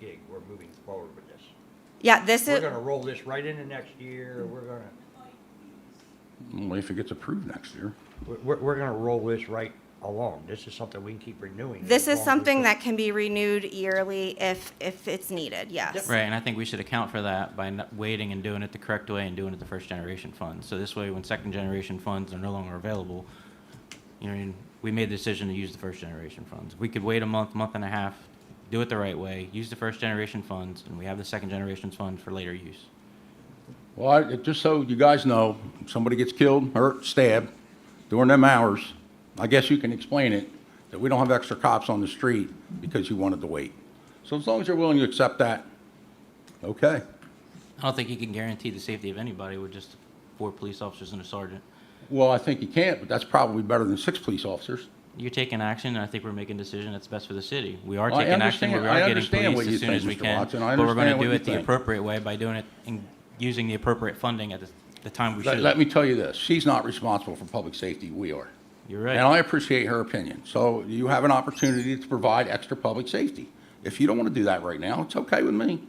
we're moving forward with this. Yeah, this We're is, gonna roll this right into next year, we're gonna, Only if it gets approved next year. we're- we're, we're gonna roll this right along. This is something we can keep renewing. this as long as is we something can. that can be renewed yearly if, if it's needed, yes. Right, and I think we should account for that by not waiting and doing it the correct way and doing it the first generation fund. So this way, when second generation funds are no longer available, you know, what I mean, we made the decision to use the first generation funds. We could wait a month, month and a half, do it the right way, use the first generation funds, and we have the second generation funds for later use. Well, I, it- just so you guys know, if somebody gets killed, hurt, stabbed during them hours, I guess you can explain it, that we don't have extra cops on the street because you wanted to wait. So as long as you're willing to accept that, okay. I don't think you can guarantee the safety of anybody with just four police officers and a sergeant. Well, I think you can't, but that's probably better than six police officers. You're taking action, and I think we're making a decision that's best for the city. We are Well, I taking action, but understand- we I are getting understand police what you as soon think, as we Mr. can. Watson. I But we're understand gonna what do you it the think. appropriate way by doing it and using the appropriate funding at the, the time we Let, should. let me tell you this, she's not responsible for public safety, we are. You're And right. I appreciate her opinion. So you have an opportunity to provide extra public safety. If you don't want to do that right now, it's okay with me.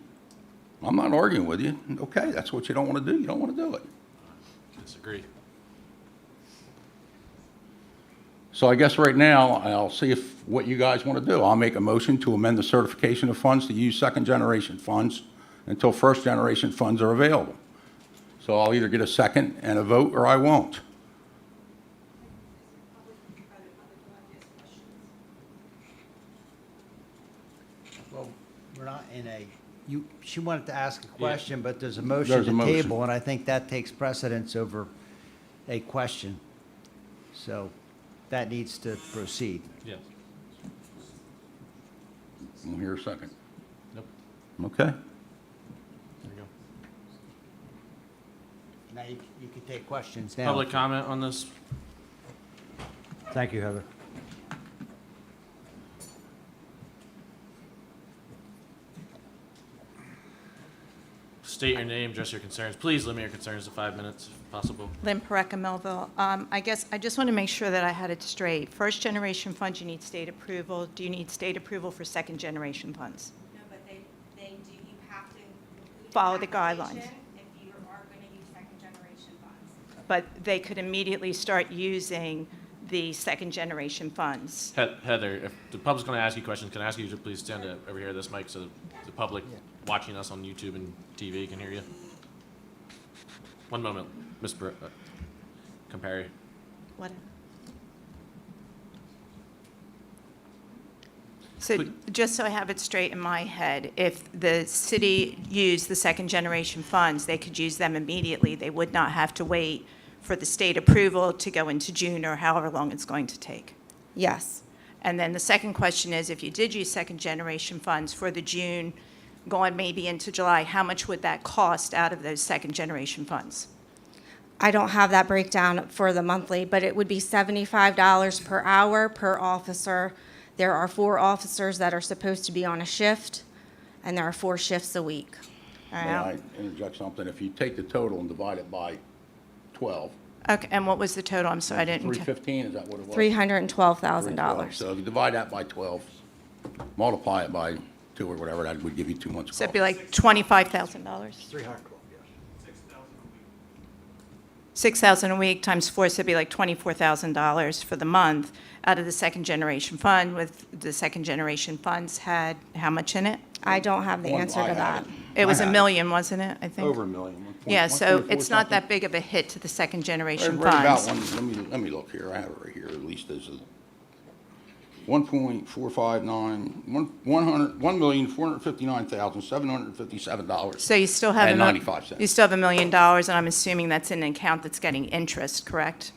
I'm not arguing with you. Okay, that's what you don't want to do. You don't want to do it. Disagree. So I guess right now, I'll see if, what you guys want to do. I'll make a motion to amend the certification of funds to use second-generation funds until first-generation funds are available. So I'll either get a second and a vote, or I won't. Well, we're not in a, you, she wanted to ask a question, but there's a motion There's a to motion. table, and I think that takes precedence over a question. So that needs to proceed. Yes. We'll hear a second. Nope. Okay? There you go. Now, you, you can take questions now. Public comment on this? Thank you, Heather. State your name, address your concerns. Please limit your concerns to five minutes if possible. Lynn Pareca, Melville. Um, I guess, I just want to make sure that I had it straight. First-generation funds, you need state approval. Do you need state approval for second-generation funds? No, but they, they do, you have to. include an Follow the guidelines. application If you are going to use second generation funds. But they could immediately start using the second-generation funds. He- Heather, if the public's going to ask you questions, can I ask you to please stand up over here at this mic so the public watching us on YouTube and TV can hear you? One moment, Ms. Bar- uh, Campari. What? So just so I have it straight in my head, if the city used the second-generation funds, they could use them immediately. They would not have to wait for the state approval to go into June or however long it's going to take. Yes. And then the second question is, if you did use second-generation funds for the June, going maybe into July, how much would that cost out of those second-generation funds? I don't have that breakdown for the monthly, but it would be seventy-five dollars per hour per officer. There are four officers that are supposed to be on a shift, and there are four shifts a week. All May right. I interject something? If you take the total and divide it by 12, Okay, and what was the total? I'm sorry, I didn't. ca- 315, is that what it was? Three hundred and twelve thousand 312. dollars. So if you divide that by 12, multiply it by two or whatever, that would give you two months' So cost. it'd be like $25,000? Three hundred and twelve, yes. 6,000 a week times four, so it'd be like $24,000 for the month out of the second-generation fund, with the second-generation funds had how much in it? I don't have the One- answer I to had that. It was I a had million, wasn't it, I think? Over a million. one point- Yeah, so 1.4 it's not that something. big of a hit to the second-generation Right- right about funds. one- Let me, let me look here, I have it right here, at least there's a 1.459, one- 100 $1,459,757. So you still have. And a mil- 95 cents. You still have a million dollars, and I'm assuming that's in an account that's getting interest, correct?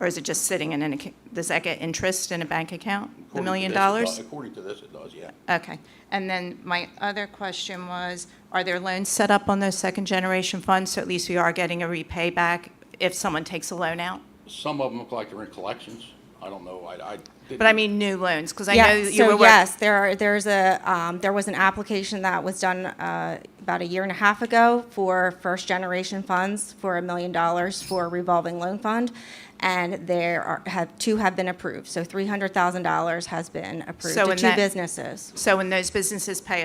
Or is it just sitting in an, acc- does that get interest in a bank account, the According to million this, it does- dollars? According to this, it does, yeah. Okay. And then my other question was, are there loans set up on those second-generation funds, so at least we are getting a repay back if someone takes a loan out? Some of them look like they're in collections. I don't know. I, I didn't. But I mean new loans, because I know Yeah, you were so working. yes, there are, there's a, um, there was an application that was done, uh, about a year and a half ago for first-generation funds for a million dollars for a revolving loan fund. And there are, have, two have been approved, so three hundred thousand dollars has been approved So to in two that- businesses. So when those businesses pay